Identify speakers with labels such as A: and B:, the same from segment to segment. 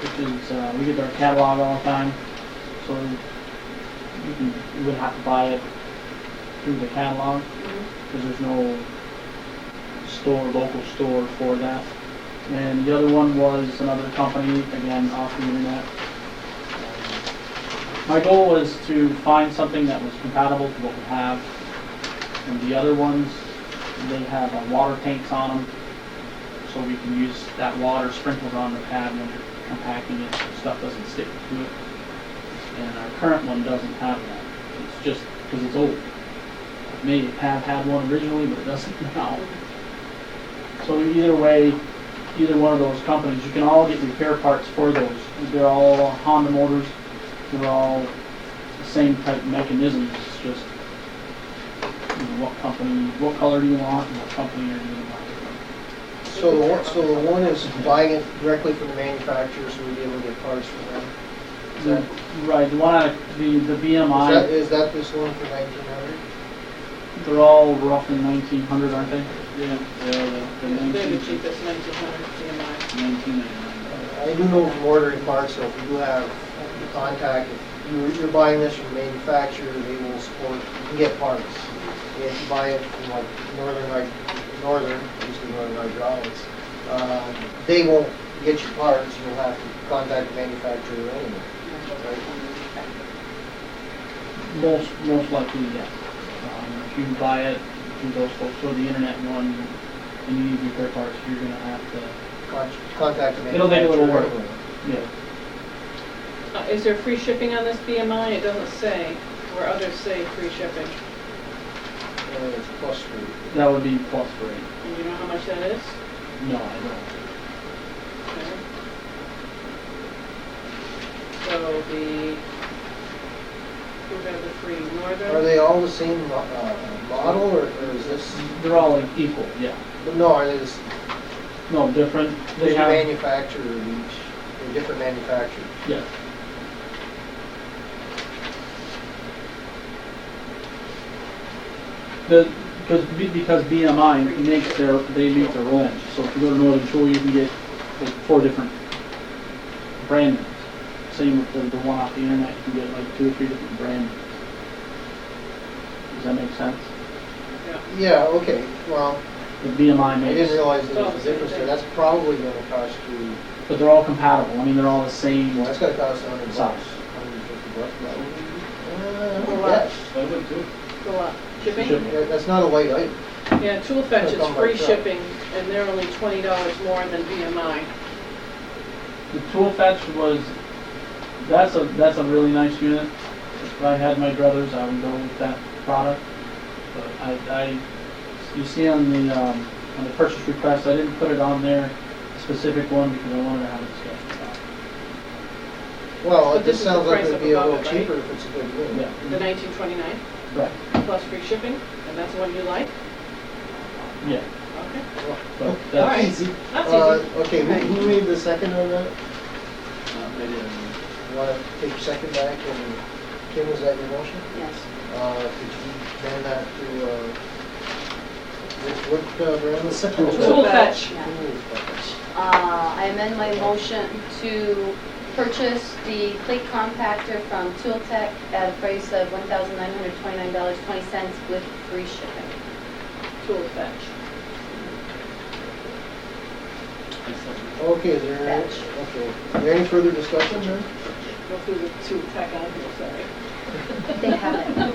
A: which is, uh, we get our catalog all the time, so you can, you would have to buy it through the catalog, because there's no store, local store for that. And the other one was another company, again, off the internet. My goal was to find something that was compatible to what we have, and the other ones, they have uh, water tanks on them, so we can use that water sprinkled on the pad when you're compacting it, so stuff doesn't stick to it. And our current one doesn't have that, it's just because it's old. Maybe a pad had one originally, but it doesn't now. So either way, either one of those companies, you can all get repair parts for those. They're all Honda motors, they're all the same type mechanisms, it's just you know, what company, what color do you want, and what company are you gonna buy?
B: So the one, so the one is buying it directly from the manufacturer, so we'd be able to get parts from them. Is that- is
A: The- Right, the one, I- the, the
B: that,
A: BMI,
B: is that this one for nineteen hundred?
A: they're all roughly nineteen hundred, aren't they?
C: Yeah, yeah, the
D: They're the
C: nineteen,
D: cheapest, nineteen hundred CMI.
C: nineteen ninety-nine.
B: I do know from ordering parts, so if you do have the contact, if you're, you're buying this from the manufacturer, they will support, you can get parts. If you buy it from like Northern, like Northern, usually Northern Hydraulics, um, they won't get your parts, you'll have to contact the manufacturer anyway.
A: Most, most likely, yes. Um, If you buy it through those folks, or the internet one, and you need repair parts, you're gonna have to,
B: Con- Contact the
A: It'll
B: manufacturer.
A: make a little work.
B: anyway.
A: yeah,
D: Uh, Is there free shipping on this BMI? It doesn't say, where others say free shipping.
B: And it's plus three.
A: that would be plus rate.
D: And you know how much that is?
A: No, I don't.
D: Okay. So the, who got the free northern?
B: Are they all the same mo- uh, model, or or is this,
A: They're all like equal, yeah.
B: no, are they just,
A: No, different, they
B: there's a
A: have,
B: manufacturer in each, they're different manufacturers?
A: yes. The, because, because BMI makes their, they make their own, so if you go to Northern Tool, you can get like four different brand names. Same with the, the one off the internet, you can get like two or three different brand names. Does that make sense?
D: Yeah.
B: Yeah, okay, well,
A: The BMI
B: I didn't
A: makes,
B: realize there was a difference there, that's probably gonna cost you,
A: but they're all compatible, I mean, they're all the same,
B: well, that's gonna cost a hundred bucks.
A: Size.
B: Hundred and fifty bucks,
D: Or
B: probably.
D: what?
B: Uh,
C: I would too.
D: Go up. Shipping?
A: Shipping.
B: yeah, that- That's not a light item.
D: Yeah, Tool Fetch
B: That's
D: is
B: on my
D: free
B: truck.
D: shipping, and they're only twenty dollars more than BMI.
A: The tool fetch was, that's a, that's a really nice unit. If I had my brothers, I would go with that product. But I, I, you see on the, um, on the purchase request, I didn't put it on there, specific one, because I wanted to have a discussion about it.
B: Well,
D: But
B: it just
D: this is the
B: sounds like
D: price
B: it'd
D: of
B: be a
D: above
B: little
D: it, right?
B: cheaper if it's a good unit.
D: The
A: Yeah,
D: nineteen twenty-nine
A: right,
D: plus free shipping, and that's the one you like?
A: yeah,
D: Okay,
A: but
D: all right,
A: that's,
D: that's easy.
B: Uh, okay, who who made the second on that?
C: Uh, maybe I
B: Want to take your second back and Kim, was that your motion?
D: Yes.
B: Uh, could you turn that to, uh, what, what, uh, Brandon?
D: Tool Fetch.
E: Yeah. Uh, I amend my motion to purchase the plate compactor from Tool Tech at a price of $1,929.20 with free shipping.
D: Tool Fetch.
C: didn't. I said-
B: Okay, is there, any-
E: Fetch.
B: okay, is there any further discussion then?
D: Go through the Tool Tech, I'm sorry.
E: They have it.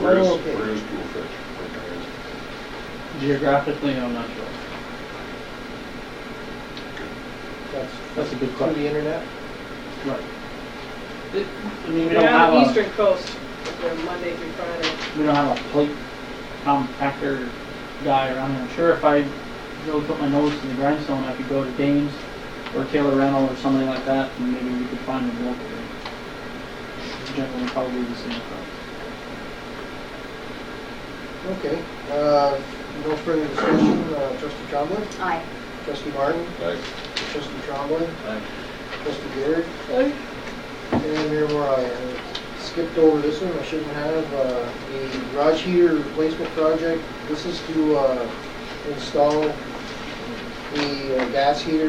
F: Where is,
B: Oh, okay.
F: where is Tool Fetch? Where is it?
A: geographically, I'm not sure.
B: That's,
A: That's a good
B: through
A: question.
B: the internet?
A: Right. It- I mean, we don't
D: They're on
A: have
D: the
A: a,
D: Eastern Coast, but they're Monday through Friday.
A: we don't have a plate compactor guy around here. I'm sure if I really put my nose to the grindstone, I could go to Dames or Taylor Rental or something like that, and maybe we could find them locally. Generally, probably the same price.
B: Okay, uh, no further discussion, uh, trustee Trombley,
E: Aye.
B: trustee Martin,
F: Like,
B: trustee Trombley,
C: I-
B: trustee Garrett, and Mayor Moore, I uh, skipped over this one, I shouldn't have, uh, the garage heater replacement project, this is to, uh, install the uh, gas heater